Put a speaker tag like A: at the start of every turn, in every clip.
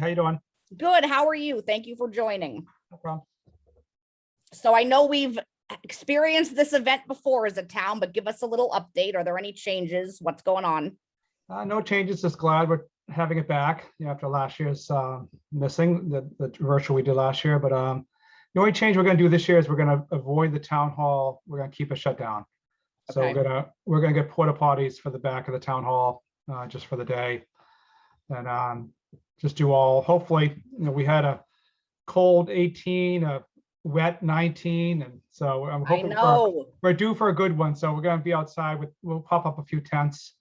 A: How you doing?
B: Good. How are you? Thank you for joining.
A: No problem.
B: So I know we've experienced this event before as a town, but give us a little update. Are there any changes? What's going on?
A: Uh, no changes, just glad we're having it back, you know, after last year's, uh, missing, the, the virtual we did last year, but, um, the only change we're gonna do this year is we're gonna avoid the town hall, we're gonna keep it shut down. So we're
B: Okay.
A: gonna, we're gonna get porta potties for the back of the town hall, uh, just for the day. And, um, just do all, hopefully, you know, we had a cold eighteen, a wet nineteen, and so I'm
B: I
A: hoping. for-
B: know.
A: we're due for a good one, so we're gonna be outside with, we'll pop up a few tents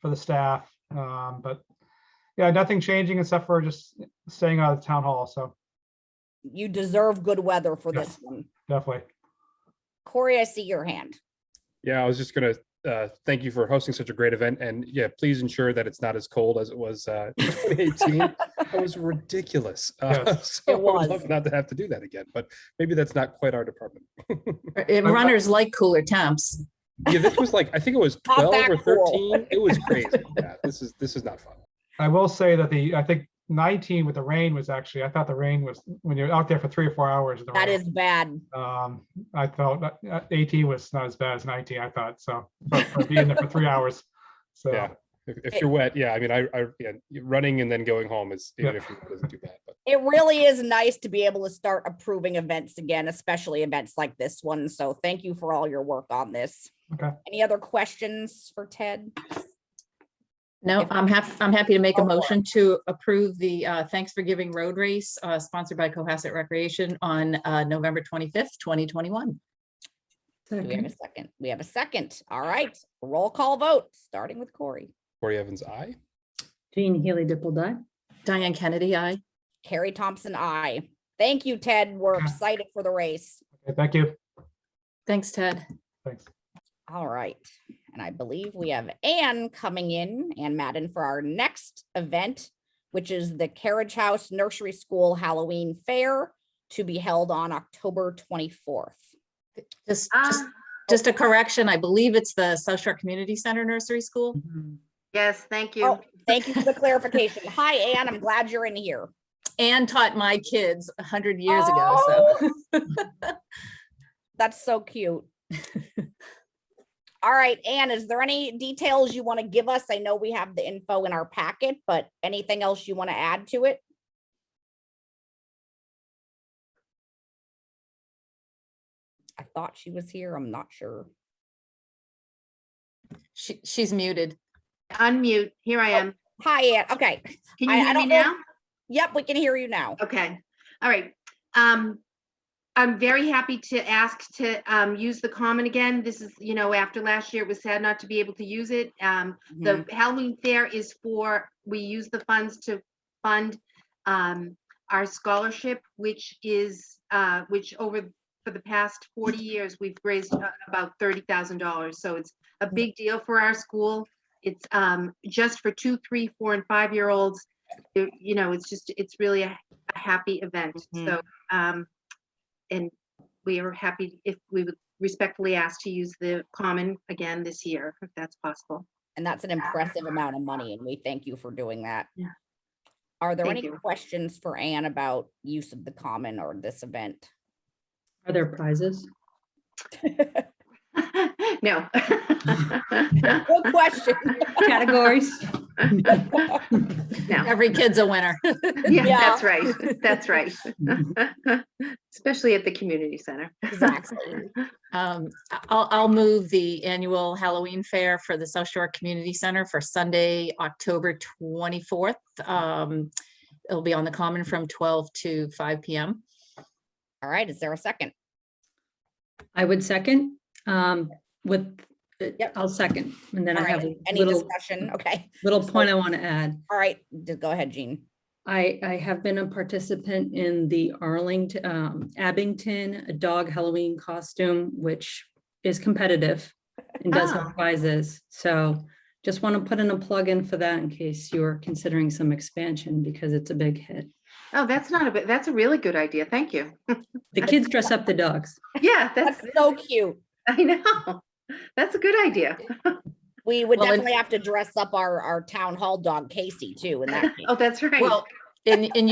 A: for the staff, um, but yeah, nothing changing except for just staying out of the town hall, so
B: You deserve good weather for
A: Yeah.
B: this one.
A: definitely.
B: Corey, I see your hand.
C: Yeah, I was just gonna uh, thank you for hosting such a great event, and yeah, please ensure that it's not as cold as it was uh, in 2018. That was ridiculous. Uh, so
B: It
C: I would
B: was.
C: love not to have to do that again, but maybe that's not quite our department.
D: And
A: I- I-
D: runners like cooler temps.
C: Yeah, this was like I think it was
B: Not
C: 12
B: that
C: or
B: cool.
C: 13. It was crazy. Yeah, this is this is not fun.
A: I will say that the, I think nineteen with the rain was actually, I thought the rain was, when you're out there for three or four hours. the
B: That
A: rain,
B: is bad.
A: Um, I felt that uh, eighteen was not as bad as nineteen, I thought, so, for for being there for three hours, so.
C: Yeah. If, if you're wet, yeah. I mean, I, I yeah, running and then going home is even
A: Yeah.
C: if you're wet, isn't too bad. But
B: It really is nice to be able to start approving events again, especially events like this one. So thank you for all your work on this.
A: Okay.
B: Any other questions for Ted?
D: No, I'm happy, I'm happy to make a
B: Go for it.
D: motion to approve the uh, Thanks for Giving Road Race uh, sponsored by Cohasset Recreation on uh, November 25th, 2021.
B: Do we have a second? We have a second. All right. Roll call vote, starting with Corey.
C: Corey Evans, I
E: Jean Healy Dipple Dye.
D: Diane Kennedy, I.
B: Carrie Thompson, I. Thank you, Ted. We're
A: Okay.
B: excited for the race.
A: Okay, Thank you,
D: Thanks, Ted.
A: thanks.
B: All right. And I believe we have Anne coming in, Ann Madden, for our next event, which is the Carriage House Nursery School Halloween Fair to be held on October 24th.
D: Just,
F: Ah.
D: just- just a correction, I believe it's the South Shore Community Center Nursery School.
F: Yes, thank you.
B: Oh, thank you for the clarification. Hi, Anne. I'm glad you're in here.
D: Anne taught my kids 100 years ago, so.
B: That's so cute. All right, Anne, is there any details you want to give us? I know we have the info in our packet, but anything else you want to add to it? I thought she was here. I'm not sure.
D: She, she's muted.
F: Unmute. Here I am.
B: Hi, Anne. Okay.
F: Can
B: Oh, I- I
F: you hear me
B: don't know-
F: now?
B: Yep, we can hear you now.
F: Okay. All right. Um, I'm very happy to ask to um, use the common again. This is, you know, after last year, it was sad not to be able to use it. Um,
B: Mhm.
F: the Halloween fair is for, we use the funds to fund um, our scholarship, which is, uh, which over, for the past 40 years, we've raised uh, about $30,000. So it's a big deal for our school. It's um, just for two, three, four, and five-year-olds. It- You know, it's just, it's really a a happy event.
B: Mhm.
F: So, um, and we are happy if we would respectfully ask to use the common again this year, if that's possible.
B: And that's an impressive amount of money, and we thank you for doing that.
F: Yeah.
B: Are there
F: Thank
B: any
F: you.
B: questions for Anne about use of the common or this event?
E: Are there prizes?
F: No.
B: Good question.
E: Categories?
F: No,
D: Every kid's a winner.
F: yeah,
B: Yeah. Mm-hmm.
F: that's right, that's right. Especially at the community center.
B: Exactly.
D: Um, I- I'll, I'll move the annual Halloween fair for the South Shore Community Center for Sunday, October 24th. Um, It'll be on the Common from 12 to 5 PM.
B: All right, is there a second?
E: I would second, um, with,
B: Yep.
E: I'll second, and then
B: All
E: I have
B: right,
E: a
B: any
E: little, Mm.
B: discussion? Okay,
E: little point I want to add.
B: all right, d- go ahead, Jean.
E: I, I have been a participant in the Arlington, um, Abington Dog Halloween costume, which is competitive and does
F: Ah.
E: have prizes. So just want to put in a plug in for that in case you're considering some expansion because it's a big hit.
F: Oh, that's not a bit, that's a really good idea, thank you.
E: The kids dress up the dogs.
F: Yeah, that's,
B: That's so cute.
F: I know, that's a good idea.
B: We would
D: Well, and-
B: definitely have to dress up our, our town hall dog Casey too in that. case.
F: Oh, that's right.
D: Well, and, and